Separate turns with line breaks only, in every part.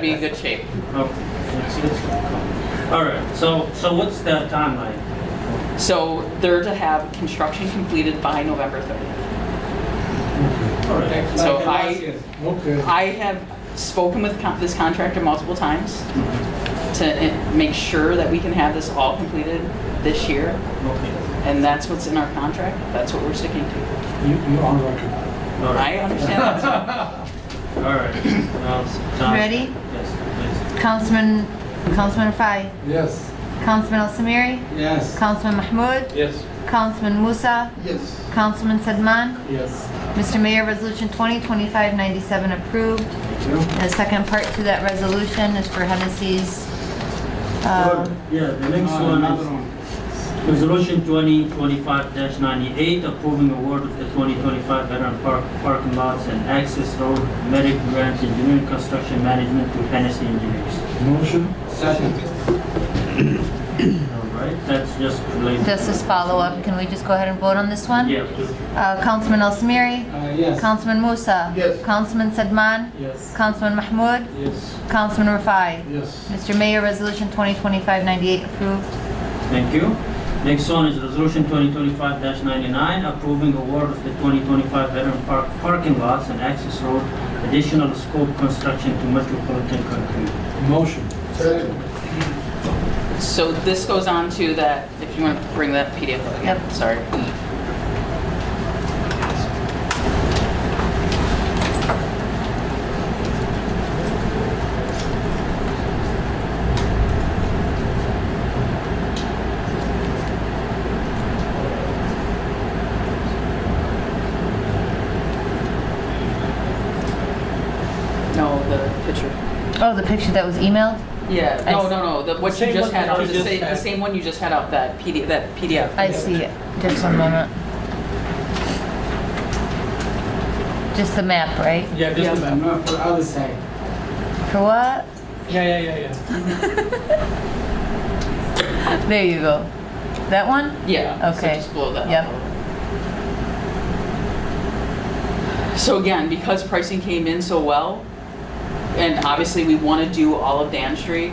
Be in good shape.
Okay, Oh, I see this one coming. All right, so, so what's the timeline?
So they're to have construction completed by November 30th.
All right,
So I,
Okay.
I have spoken with con- this contractor multiple times to eh, make sure that we can have this all completed this year.
okay.
And that's what's in our contract. That's what we're sticking to.
You, you are record.
All right,
I understand that.
all right. Now, Tom.
Ready?
Yes,
Councilman, Councilman Fai,
Yes.
Councilman El Samiri,
Yes.
Councilman Mahmoud,
please. Yes.
Councilman Musa,
Yes.
Councilman Sedman.
Yes.
Mr. Mayor, Resolution 2025-97 approved.
Thank you.
The second part to that resolution is for Hennessy's, uh,
Yeah, the next
Uh,
one
another
is Resolution 2025-98, approving award of the 2025 Veteran Park Parking Lots and Access Road Medic Grant Engineering Construction Management to Hennessy Engineers.
Motion. Second.
All right, that's just related.
this is follow-up. Can we just go ahead and vote on this one?
Yeah.
Uh, Councilman El Samiri,
Uh, yes.
Councilman Musa.
Yes.
Councilman Sedman,
Yes.
Councilman Mahmoud,
Yes.
Councilman Rafai.
Yes.
Mr. Mayor, Resolution 2025-98 approved.
Thank you. Next one is Resolution 2025-99, approving award of the 2025 Veteran Park parking lots and access road additional scope construction to Metropolitan Concrete.
Motion. Second.
So this goes on to that, if you want to bring that PDF up again,
Yep.
sorry. No, the picture.
Oh, the picture that was emailed?
Yeah,
I
no,
s-
no, no, the, what you
Same
just
one
had,
that
up,
I
the
just
same, the
had.
same one you just had out, that PD, that PDF.
I see it. Just one moment. Just the map, right?
Yeah,
Yeah.
just a minute. No, for other side.
For what?
Yeah, yeah, yeah, yeah.
There you go. That one?
Yeah, so
Okay.
just blow that
Yep.
up. a little. So again, because pricing came in so well, and obviously we want to do all of Dan Street,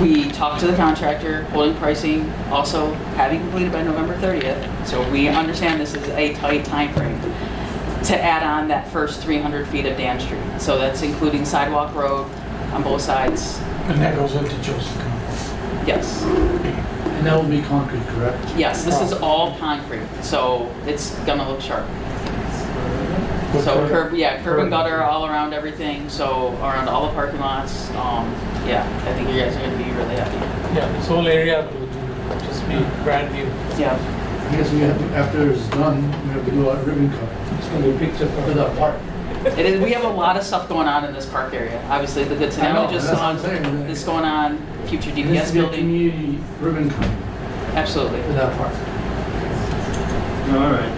we talked to the contractor, holding pricing, also having completed by November 30th, so we understand this is a tight timeframe to add on that first 300 feet of Dan Street. So that's including sidewalk road on both sides,
And that goes into Joseph Campbell.
yes.
And that will be concrete, correct?
Yes, this
Oh.
is all concrete, so it's gonna look sharp.
With
So
curb-
curb, yeah, curb and
curb.
gutter all around everything, so around all the parking lots. Um, yeah, I think you guys are gonna be really happy.
Yeah, this whole area will just be brand new.
Yeah,
I guess we have, to- after it's done, we have to do a ribbon cut. It's gonna be a picture for the park.
it is, we have a lot of stuff going on in this park area. Obviously, the Good
I know,
Samaritan just
that's
saw
what I'm saying.
this going on, future
It has
DPS
to be a
building,
community ribbon cut
absolutely.
for that park.
All right.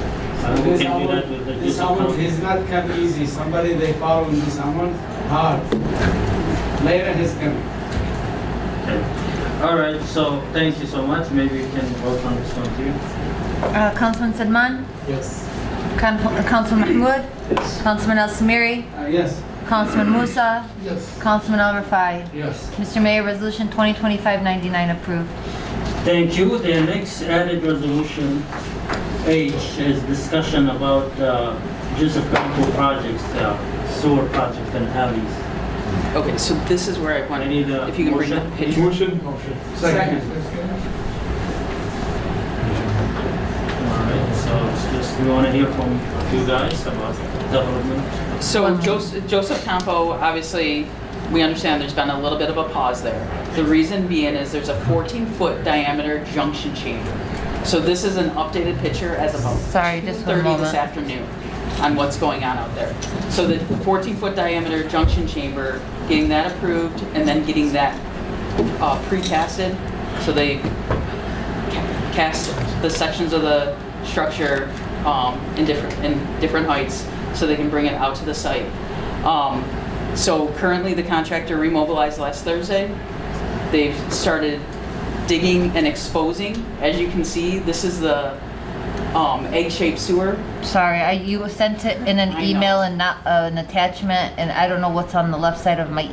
Uh, we
This
can do
amount,
that with the
this
Joseph
amount
County.
is not come easy. Somebody they follow in this amount hard. Later he's coming.
Okay. All right, so thank you so much. Maybe we can work on this one too.
Uh, Councilman Sedman,
Yes.
Con- uh, Councilman Mahmoud, Councilman El Samiri,
Uh, yes.
Councilman Musa,
Yes.
Councilman Al Rafai.
Yes.
Mr. Mayor, Resolution 2025-99 approved.
Thank you. The next added resolution H is discussion about uh, Joseph County projects, uh, sewer projects and alleys.
Okay, so this is where I
I
wanted,
need a
if you can bring
motion.
that picture.
Motion.
All right, so it's just, we want to hear from you guys about development.
So Joseph, Joseph Campo, obviously, we understand there's been a little bit of a pause there. The reason being is there's a 14-foot diameter junction chamber. So this is an updated picture as of
Sorry, just one
2:30 this
moment.
afternoon on what's going on out there. So the 14-foot diameter junction chamber, getting that approved and then getting that uh, precasted. So they ca- cast the sections of the structure um, in different, in different heights so they can bring it out to the site. Um, So currently, the contractor remobilized last Thursday. They've started digging and exposing. As you can see, this is the um, egg-shaped sewer.
Sorry, I, you sent it in
I
an
know.
email and not uh, an attachment, and I don't know what's on the left side of my